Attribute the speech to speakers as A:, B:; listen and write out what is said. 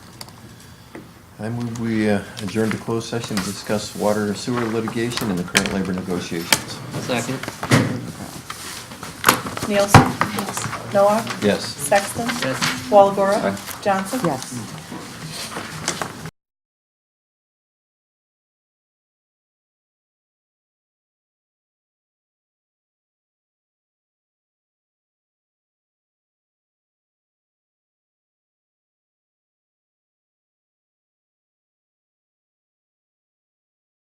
A: I move we uh, adjourn to closed session to discuss water and sewer litigation and the current labor negotiations.
B: Second.
C: Nielsen? Noah?
A: Yes.
C: Sexton?
B: Yes.
C: Walagora?
A: Aye.
C: Johnson?
D: Yes.